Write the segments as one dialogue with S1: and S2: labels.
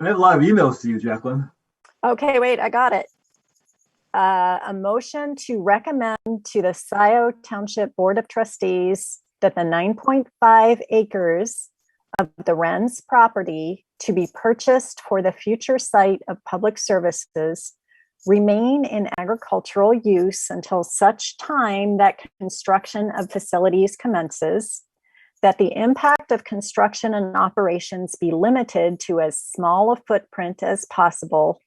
S1: I have a lot of emails to you, Jacqueline.
S2: Okay, wait, I got it. Uh, a motion to recommend to the SiO Township Board of Trustees that the 9.5 acres of the Wren's property to be purchased for the future site of public services remain in agricultural use until such time that construction of facilities commences, that the impact of construction and operations be limited to as small a footprint as possible,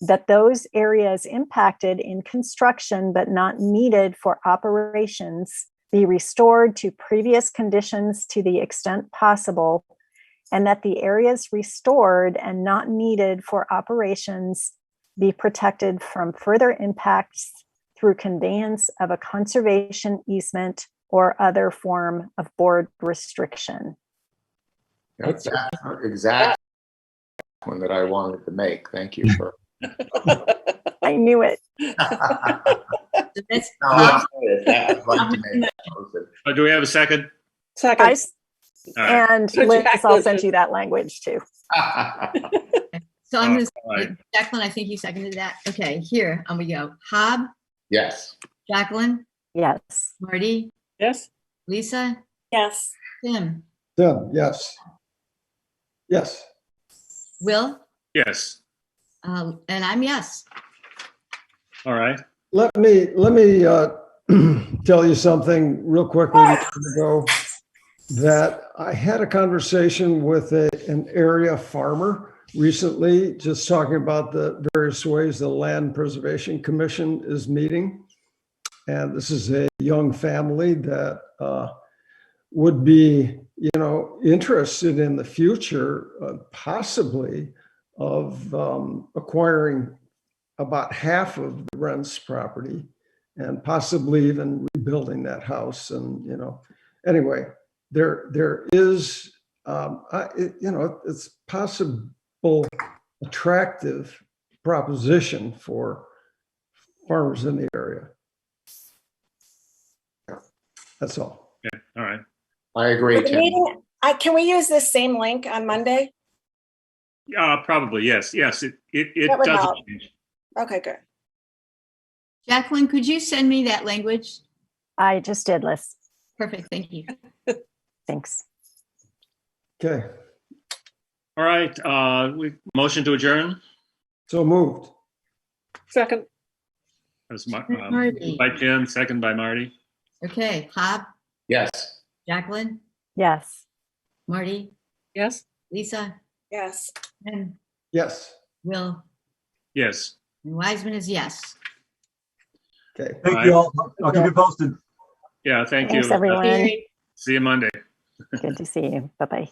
S2: that those areas impacted in construction but not needed for operations be restored to previous conditions to the extent possible, and that the areas restored and not needed for operations be protected from further impacts through conveyance of a conservation easement or other form of board restriction.
S3: That's exactly one that I wanted to make. Thank you for.
S2: I knew it.
S4: That's,
S3: No, I'm sorry. I'd like to make that motion.
S5: Uh, Do we have a second?
S2: I
S6: Second,
S2: s-
S5: All right.
S2: and
S6: So
S2: Liz,
S6: Jack
S2: I'll
S6: was
S2: send
S6: just-
S2: you that language too.
S4: so I'm gonna,
S5: All right.
S4: Jacqueline, I think you seconded that. Okay, here, I'm gonna go. Hob,
S3: Yes,
S4: Jacqueline,
S2: Yes.
S4: Marty,
S6: yes?
S4: Lisa,
S6: Yes.
S4: Tim,
S7: Tim, yes. Yes,
S4: Will,
S5: Yes,
S4: uh, and I'm yes.
S5: all right.
S7: let me, let me uh, tell you something real quickly before we go. That I had a conversation with a- an area farmer recently, just talking about the various ways the Land Preservation Commission is meeting. And this is a young family that uh, would be, you know, interested in the future uh, possibly of um, acquiring about half of the Rents property and possibly even rebuilding that house and, you know, anyway, there, there is, um, I, it, you know, it's possible attractive proposition for farmers in the area. That's all.
S5: All right.
S3: I agree,
S8: The
S3: Tim.
S8: meeting- I, can we use this same link on Monday?
S5: Uh, probably, yes, yes, it, it, it
S8: That would
S5: does.
S8: help. Okay, good.
S4: Jacqueline, could you send me that language?
S2: I just did, Liz.
S4: Perfect, thank you.
S2: Thanks.
S7: Okay,
S5: All right, uh, we, motion to adjourn.
S7: so moved.
S6: Second,
S5: That's my, um,
S4: Marty,
S5: by Tim, second by Marty.
S4: okay, Hob,
S3: Yes.
S4: Jacqueline,
S2: Yes.
S4: Marty,
S6: yes?
S4: Lisa,
S8: Yes.
S4: Tim,
S7: Yes,
S4: Will,
S5: Yes,
S4: and Wiseman is yes.
S7: okay.
S5: All
S1: Thank
S5: right.
S1: you all. I'll keep you posted.
S5: yeah, thank you.
S2: Thanks, everyone.
S5: See you Monday.
S2: Good to see you. Bye-bye.